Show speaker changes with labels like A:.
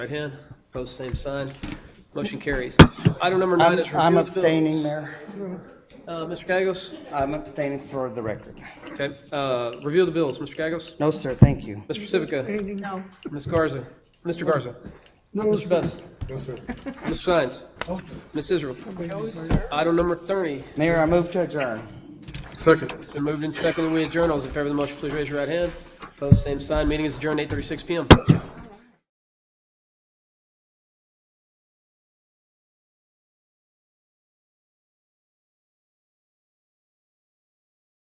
A: Right hand, opposed, same sign. Motion carries. Item number nine
B: I'm
A: is review
B: I'm
A: of bills.
B: abstaining, Mayor.
A: Uh, Mr. Gagos?
B: I'm abstaining for the record.
A: Okay, uh, review of the bills, Mr. Gagos?
B: No, sir, thank you.
A: Mr. Pacifica?
C: No.
A: Ms. Garza? Mr. Garza? Mr. Best? Mr. Science? Ms. Israel? Item number thirty,
B: Mayor, I move to adjourn.
D: Second.
A: it's been moved and seconded, we adjourn. All those in favor of the motion, please raise your right hand. Opposed, same sign. Meeting is adjourned eight thirty-six PM.